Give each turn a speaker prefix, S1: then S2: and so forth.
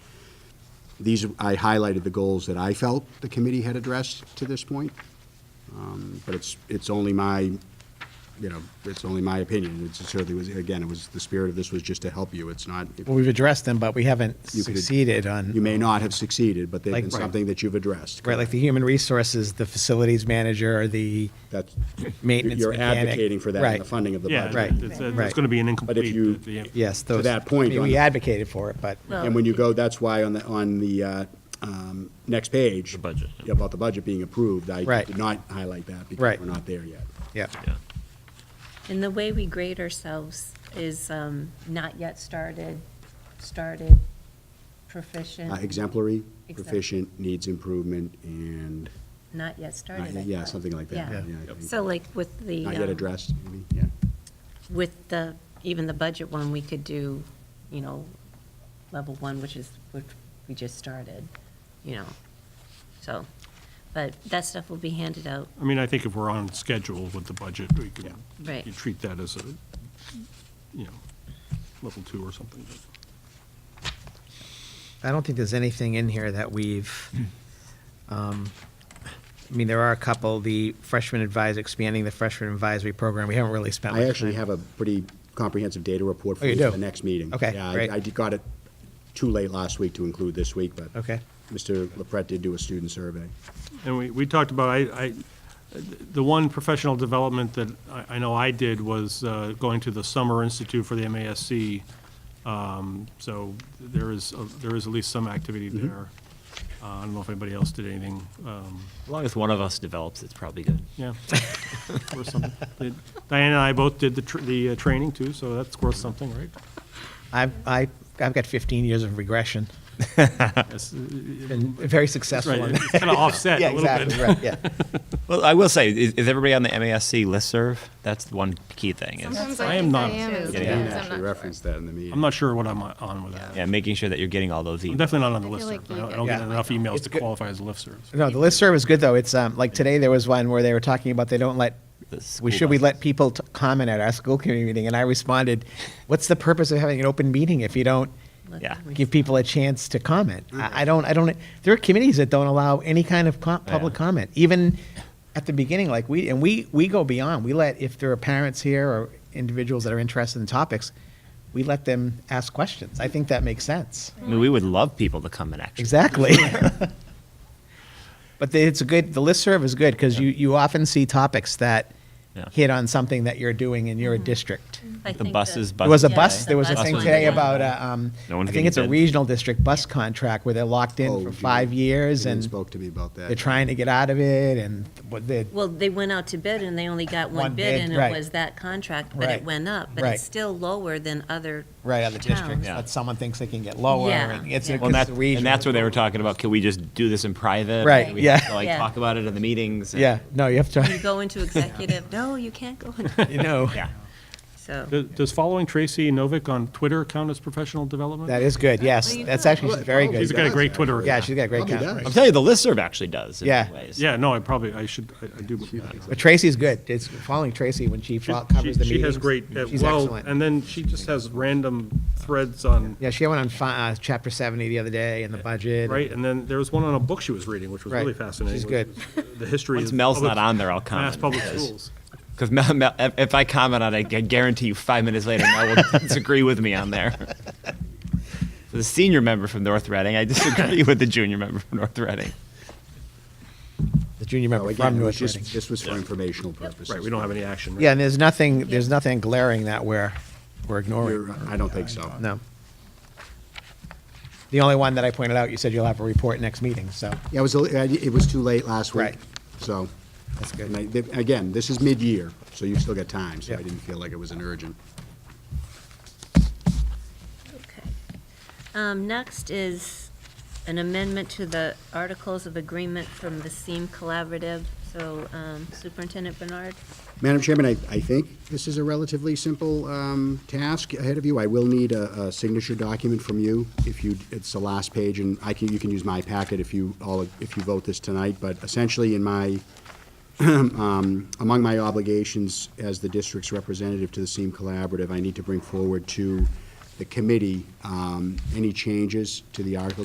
S1: These, I highlighted the goals that I felt the committee had addressed to this point. Um, But it's, it's only my, you know, it's only my opinion. It certainly was, again, it was, the spirit of this was just to help you. It's not,
S2: Well, we've addressed them, but we haven't
S1: You could-
S2: succeeded on.
S1: you may not have succeeded, but they've been
S2: Like-
S1: something that you've addressed.
S2: Right, like the human resources, the facilities manager, or the,
S1: That's,
S2: Maintenance
S1: you're
S2: mechanic.
S1: advocating for that in the
S2: Right.
S1: funding of the
S3: Yeah,
S1: budget.
S2: Right.
S3: it's,
S2: Right.
S3: it's going to be an incomplete.
S1: you-
S3: the- the-
S2: yes,
S1: To
S2: those.
S1: that point,
S2: I mean,
S1: on
S2: We
S1: the-
S2: advocated for it, but,
S4: Well-
S1: And when you go, that's why on the, on the uh, um, next page.
S3: The budget.
S1: About the budget being approved, I
S2: Right.
S1: did not highlight that because
S2: Right.
S1: we're not there yet.
S2: yeah,
S3: yeah.
S4: And the way we grade ourselves is um, not yet started, started,
S1: Uh,
S4: proficient,
S1: Exemplary,
S4: Exemp-
S1: proficient, needs improvement, and,
S4: not yet started. I
S1: not- yeah,
S4: thought.
S1: something like that.
S4: Yeah.
S1: yeah, I think.
S4: So like with the.
S1: Not yet
S4: um,
S1: addressed, maybe, yeah.
S4: With the, even the budget one, we could do, you know, level one, which is, which we just started, you know, so, but that stuff will be handed out,
S3: I mean, I think if we're on schedule with the budget, we can,
S4: Right.
S3: you treat that as a, you know, level two or something.
S2: I don't think there's anything in here that we've, um, I mean, there are a couple, the freshman advisor, expanding the freshman advisory program, we haven't really spent.
S1: I
S2: much
S1: actually
S2: time-
S1: have a pretty comprehensive data report for
S2: Oh, you
S1: you for
S2: do?
S1: the next meeting.
S2: Okay,
S1: Yeah,
S2: great.
S1: I- I did- got it too late last week to include this week, but.
S2: Okay.
S1: Mr. LaPret did do a student survey.
S3: And we, we talked about, I, I, the one professional development that I, I know I did was uh, going to the Summer Institute for the MASC. Um, So there is, a- there is at least some activity
S1: Mm-hmm.
S3: there. Uh, I don't know if anybody else did anything, um,
S5: As long as one of us develops, it's probably good.
S3: yeah. Worth something. Diana and I both did the, tr- the uh, training too, so that's worth something, right?
S2: I've, I, I've got fifteen years of regression,
S3: Yes,
S2: been very successful.
S3: Right,
S2: in
S3: it's kind of offset
S2: Yeah,
S3: a little bit.
S2: exactly, right, yeah.
S5: Well, I will say, is, is everybody on the MASC listserv? That's the one key thing. Is,
S6: Sometimes
S3: I
S6: I
S3: am
S6: think
S3: not-
S6: I am, and
S5: Yeah,
S1: I
S5: yeah.
S1: didn't
S6: sometimes I'm not
S1: actually
S6: sure.
S1: reference that in the meeting.
S3: I'm not sure what I'm on with that.
S5: yeah, making sure that you're getting all those
S3: I'm
S5: emails.
S3: definitely not on the
S6: I feel
S3: listserv.
S6: like
S3: I
S6: you
S3: don't- I
S6: get
S3: don't get
S2: Yeah.
S3: enough emails
S2: It's
S3: to
S2: good.
S3: qualify as listservs.
S2: No, the listserv is good, though. It's, um, like today, there was one where they were talking about they don't let,
S5: The
S2: we,
S5: school
S2: should we let
S5: buses.
S2: people t- comment at our school committee meeting? And I responded, what's the purpose of having an open meeting if you don't
S4: let
S5: Yeah.
S4: them re-
S2: give people a chance to comment? I, I don't, I don't, there are committees that don't allow any kind of co- public
S5: Yeah.
S2: comment, even at the beginning, like we, and we, we go beyond. We let, if there are parents here or individuals that are interested in topics, we let them ask questions. I think that makes sense.
S5: I mean, we would love people to come and actually.
S2: Exactly. But the- it's a good, the listserv is good because you, you often see topics that
S5: Yeah.
S2: hit on something that you're doing in your district.
S4: I
S5: The
S4: think
S5: buses,
S2: There was a
S4: Yeah,
S2: bus,
S4: the
S2: there was a
S4: bus
S2: thing
S4: one.
S2: today
S4: Yeah.
S2: about, a, um,
S5: No
S2: I
S5: one's
S2: think
S5: getting
S2: it's a
S5: bid.
S2: regional district bus contract where they're locked
S1: Oh,
S2: in for
S1: you
S2: five
S1: didn't-
S2: years
S1: you didn't
S2: and
S1: spoke to me about that.
S2: they're trying to get out of it and what they,
S4: Well, they went out to bid and they only got
S2: One
S4: one bid
S2: bid,
S4: and
S2: right.
S4: it was that contract, but
S2: Right.
S4: it went up, but
S2: Right.
S4: it's still lower than other.
S2: right, other districts.
S4: Towns.
S5: Yeah.
S2: But someone thinks they can get lower
S4: Yeah,
S2: and it's,
S4: yeah.
S2: a-
S5: Well, and,
S2: 'cause it's
S5: that,
S2: a
S5: and that's
S2: regional.
S5: where they were talking about. Can we just do this in private?
S2: Right,
S5: We
S2: yeah.
S5: Have to, like
S4: Yeah.
S5: talk about it in the meetings. and-
S2: Yeah, no, you have
S4: You
S2: to,
S4: go into executive, no, you can't go into,
S2: you know,
S5: Yeah.
S4: so.
S3: Does- Does following Tracy Novick on Twitter count as professional development?
S2: that is good, yes.
S4: Well, you
S2: That's
S4: could.
S2: actually, she's very
S3: She's
S2: good.
S3: got a great Twitter
S2: Yeah,
S3: account.
S2: she's got a great
S1: Probably
S2: count.
S1: does.
S5: I'm telling you, the listserv actually does. In
S2: Yeah.
S5: many Ways.
S3: Yeah, no, I probably, I should, I- I do.
S2: But Tracy's good. It's following Tracy when she fo-
S3: She-
S2: covers the meetings.
S3: She has great, uh,
S2: She's
S3: well,
S2: excellent.
S3: and then she just has random threads on,
S2: Yeah, she had one on fi- uh, chapter seventy the other day and the budget.
S3: right? And then there was one on a book she was reading, which was
S2: Right.
S3: really fascinating.
S2: She's
S3: which was The history of.
S5: Once Mel's
S3: public-
S5: not on there, I'll
S3: Mass
S5: comment.
S3: public
S5: because-
S3: schools.
S5: Because Mel, Mel, if if I comment on it, I guarantee you five minutes later, Mel will disagree with me on there. The senior member from North Reading, I disagree with the junior member from North Reading.
S2: The junior
S1: So
S2: member
S1: again,
S2: from
S1: it was Oh,
S2: North
S1: just-
S2: Reading.
S1: this was for informational purposes.
S3: Right, we don't have any action. right?
S2: Yeah, and there's nothing, there's nothing glaring that we're, we're ignoring.
S1: You're- I don't think so.
S2: No. The only one that I pointed out, you said you'll have a report next meeting, so
S1: Yeah, it was, a- I- it was too late last week.
S2: Right.
S1: So,
S2: that's
S1: and I-
S2: good.
S1: th- again, this is mid-year, so you still got time, so I
S2: Yeah.
S1: didn't feel like it was an urgent.
S4: Okay. Um, Next is an amendment to the Articles of Agreement from the SEEM Collaborative. So um, Superintendent Bernard,
S1: Madam Chairman, I, I think this is a relatively simple um, task ahead of you. I will need a, a signature document from you if you, it's the last page, and I can, you can use my packet if you all, if you vote this tonight, but essentially in my, um, among my obligations as the district's representative to the SEEM Collaborative, I need to bring forward to the committee um, any changes to the articles